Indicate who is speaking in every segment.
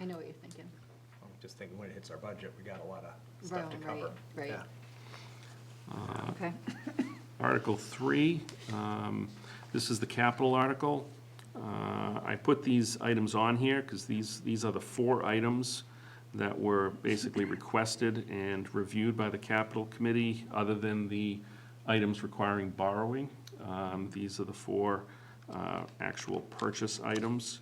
Speaker 1: I know what you're thinking.
Speaker 2: I'm just thinking when it hits our budget, we got a lot of
Speaker 1: Right,
Speaker 2: stuff to cover.
Speaker 1: Right,
Speaker 2: Yeah.
Speaker 1: right, okay.
Speaker 3: Article three, um, this is the capital article. Uh, I put these items on here because these, these are the four items that were basically requested and reviewed by the capital committee, other than the items requiring borrowing. Um, These are the four uh, actual purchase items.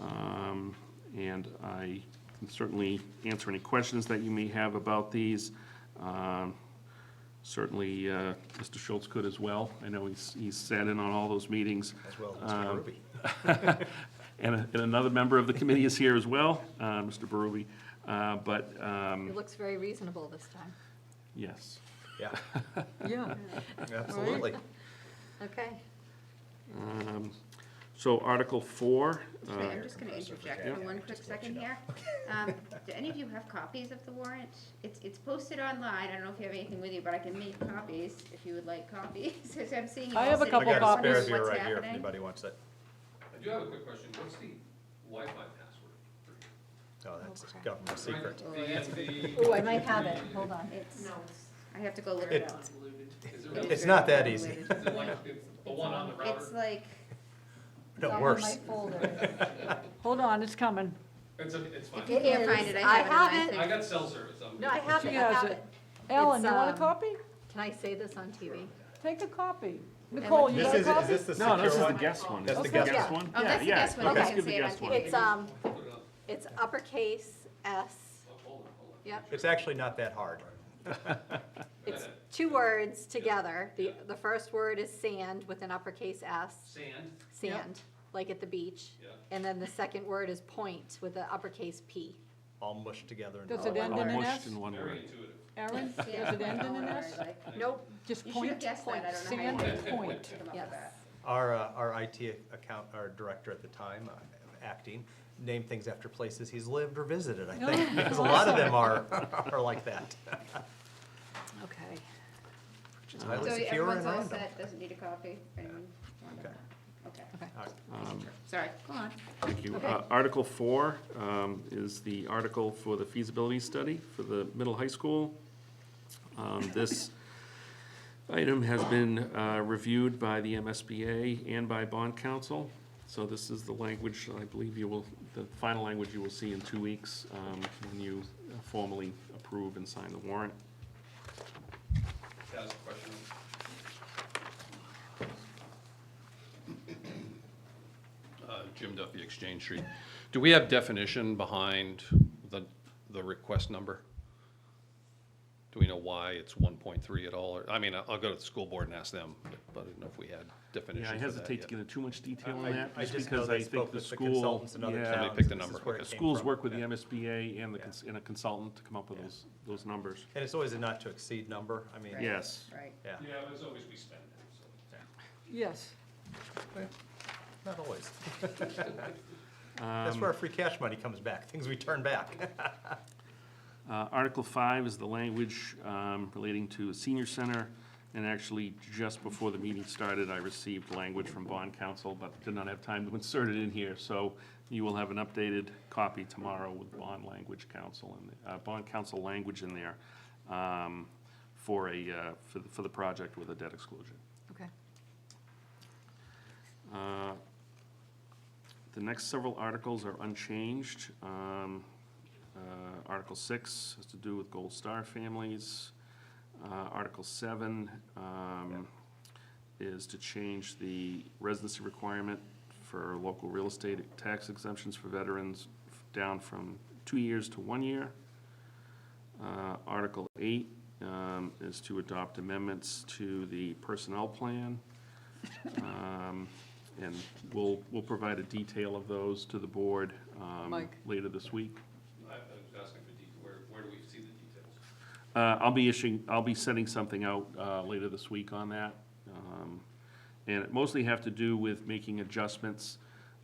Speaker 3: Um, And I can certainly answer any questions that you may have about these. Um, Certainly, uh, Mr. Schultz could as well. I know he's, he's sat in on all those meetings.
Speaker 2: As well as
Speaker 3: Um,
Speaker 2: Mr. Ruby.
Speaker 3: And, and another member of the committee is here as well, uh, Mr. Berube. Uh, But, um,
Speaker 1: It looks very reasonable this time.
Speaker 3: yes.
Speaker 2: Yeah,
Speaker 4: Yeah.
Speaker 2: absolutely.
Speaker 1: Okay.
Speaker 3: Um, So Article four, uh,
Speaker 5: Sorry, I'm just gonna
Speaker 2: Professor
Speaker 5: interject
Speaker 2: Virginia,
Speaker 5: for one quick
Speaker 2: just to let
Speaker 5: second
Speaker 2: you know.
Speaker 5: here. Um, Do any of you have copies of the warrant? It's, it's posted online, I don't know if you have anything with you, but I can make copies if you would like copies, 'Cause I'm seeing you
Speaker 4: I
Speaker 5: all
Speaker 4: have a
Speaker 5: sitting
Speaker 2: I
Speaker 4: couple
Speaker 5: there
Speaker 2: got a spare
Speaker 5: wondering
Speaker 4: copies.
Speaker 2: beer
Speaker 5: what's
Speaker 2: right here if
Speaker 5: happening.
Speaker 2: anybody wants it.
Speaker 6: I do have a quick question. What's the Wi-Fi password? for you?
Speaker 2: Oh, that's
Speaker 1: Okay.
Speaker 2: government secret.
Speaker 5: Oh,
Speaker 6: The-
Speaker 5: that's
Speaker 6: the-
Speaker 1: Oh, I might have it, hold on.
Speaker 5: It's, I have to go look it
Speaker 2: It-
Speaker 5: up.
Speaker 6: Is it really-
Speaker 2: It's
Speaker 6: is
Speaker 2: not that easy.
Speaker 5: It's
Speaker 6: it like the the one on the
Speaker 5: It's
Speaker 6: router?
Speaker 5: like,
Speaker 1: It's all
Speaker 2: No,
Speaker 1: in
Speaker 2: worse.
Speaker 1: my folder.
Speaker 4: Hold on, it's coming.
Speaker 6: It's, a- it's
Speaker 1: It
Speaker 5: you
Speaker 1: is.
Speaker 6: fine.
Speaker 5: can't find it, I
Speaker 1: I
Speaker 5: have it
Speaker 1: have
Speaker 5: in
Speaker 1: it.
Speaker 5: my
Speaker 6: I
Speaker 5: thing.
Speaker 6: got cell service. I'm
Speaker 1: No, I
Speaker 6: good.
Speaker 1: have it,
Speaker 4: She
Speaker 1: I
Speaker 4: has
Speaker 1: have
Speaker 4: it.
Speaker 1: it.
Speaker 4: Ellen,
Speaker 1: It's,
Speaker 4: you want a
Speaker 5: uh,
Speaker 1: um,
Speaker 4: copy?
Speaker 1: Can I say this on TV?
Speaker 4: Take a copy. Nicole, you
Speaker 2: This
Speaker 4: got a
Speaker 2: is, is
Speaker 4: copy?
Speaker 2: this the
Speaker 3: no, this
Speaker 2: secure
Speaker 3: is the
Speaker 2: one?
Speaker 3: guest one.
Speaker 2: That's
Speaker 3: Is
Speaker 2: the
Speaker 3: this
Speaker 2: guest
Speaker 3: one?
Speaker 5: Oh,
Speaker 3: Yeah,
Speaker 5: that's the
Speaker 3: yeah.
Speaker 5: guest one.
Speaker 3: Okay,
Speaker 1: Okay.
Speaker 3: Let's give the
Speaker 5: Say it on
Speaker 3: guest one.
Speaker 5: TV.
Speaker 1: It's, um,
Speaker 6: Put it up.
Speaker 1: it's uppercase S,
Speaker 6: Oh, Hold on, hold on.
Speaker 1: yep.
Speaker 2: It's actually not that hard.
Speaker 1: It's two words together. The, the first word is sand with an uppercase S,
Speaker 6: Sand,
Speaker 1: sand, like at the beach.
Speaker 6: yeah.
Speaker 1: And then the second word is point with an uppercase P.
Speaker 2: All mushed together and
Speaker 4: Does
Speaker 2: all
Speaker 4: it end
Speaker 3: All
Speaker 4: in an
Speaker 3: mushed
Speaker 4: S?
Speaker 3: in one
Speaker 6: Very
Speaker 3: word.
Speaker 6: intuitive.
Speaker 4: Aaron, does
Speaker 5: Yeah,
Speaker 4: it end in an S?
Speaker 1: Nope,
Speaker 4: Just
Speaker 5: You should have
Speaker 4: point,
Speaker 5: guessed that, I
Speaker 4: point,
Speaker 5: don't know. how
Speaker 4: sand,
Speaker 5: you did it.
Speaker 4: point.
Speaker 5: Come up with
Speaker 1: yes.
Speaker 5: that.
Speaker 2: Our, uh, our IT account, our director at the time, uh, acting, named things after places he's lived or visited, I think. Because a lot of them are, are like that.
Speaker 1: okay.
Speaker 2: Which is highly
Speaker 5: So
Speaker 2: secure and
Speaker 5: everyone's all
Speaker 2: random.
Speaker 5: set, doesn't need a copy, if anyone wanted
Speaker 2: Okay.
Speaker 5: that. Okay,
Speaker 3: Um,
Speaker 5: sorry, go on.
Speaker 3: Thank you. Uh, Article four um, is the article for the feasibility study for the middle high school. Um, This item has been uh, reviewed by the MSBA and by bond council. So this is the language, I believe you will, the final language you will see in two weeks um, when you formally approve and sign the warrant.
Speaker 6: That was a question. Uh, Jim Duffy, Exchange Street. Do we have definition behind the, the request number? Do we know why it's one point three at all? Or, I mean, I'll I'll go to the school board and ask them, but I didn't know if we had definition
Speaker 3: Yeah, I
Speaker 6: for that
Speaker 3: hesitate to
Speaker 6: yet.
Speaker 3: get into too much detail on
Speaker 2: I
Speaker 3: that,
Speaker 2: I
Speaker 3: just
Speaker 2: just know
Speaker 3: because I
Speaker 2: they
Speaker 3: think
Speaker 2: spoke
Speaker 3: the
Speaker 2: with the
Speaker 3: school,
Speaker 2: consultants in other
Speaker 3: yeah.
Speaker 2: towns.
Speaker 6: picked
Speaker 2: and
Speaker 6: the
Speaker 2: this is
Speaker 6: number.
Speaker 2: where it
Speaker 6: Okay.
Speaker 2: came
Speaker 3: Schools
Speaker 2: from.
Speaker 3: work with the
Speaker 2: Yeah.
Speaker 3: MSBA and the,
Speaker 2: Yeah.
Speaker 3: cons- and a consultant to come up with those, those numbers.
Speaker 2: And it's always a not to exceed number, I mean.
Speaker 5: Right,
Speaker 3: Yes.
Speaker 5: Right.
Speaker 2: Yeah,
Speaker 6: Yeah, but as always, we spend it, so.
Speaker 4: Yes.
Speaker 2: not always.
Speaker 3: Um,
Speaker 2: That's where our free cash money comes back, things we turn back.
Speaker 3: Uh, Article five is the language um, relating to a senior center, and actually, just before the meeting started, I received language from bond council, but did not have time to insert it in here, so you will have an updated copy tomorrow with bond language council and, uh, bond council language in there um, for a, uh, for the, for the project with a debt exclusion.
Speaker 1: Okay.
Speaker 3: Uh, The next several articles are unchanged. Um, uh, Article six has to do with Gold Star families. Uh, Article seven um, is to change the residency requirement for local real estate tax exemptions for veterans f- down from two years to one year. Uh, Article eight um, is to adopt amendments to the personnel plan. Um, And we'll, we'll provide a detail of those to the board um,
Speaker 4: Mike.
Speaker 3: later this week.
Speaker 6: I I was asking for detail, where, where do we see the details?
Speaker 3: Uh, I'll be issuing, I'll be sending something out uh, later this week on that. Um, And it mostly have to do with making adjustments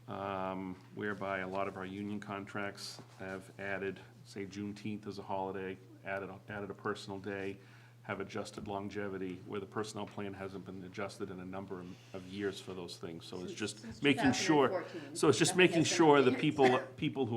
Speaker 3: um, whereby a lot of our union contracts have added, say Juneteenth as a holiday, added, added a personal day, have adjusted longevity, where the personnel plan hasn't been adjusted in a number of years for those things. So it's just making sure,
Speaker 5: 2014.
Speaker 3: so it's just
Speaker 5: Nothing
Speaker 3: making
Speaker 5: has been
Speaker 3: sure the
Speaker 5: updated.
Speaker 3: people, people who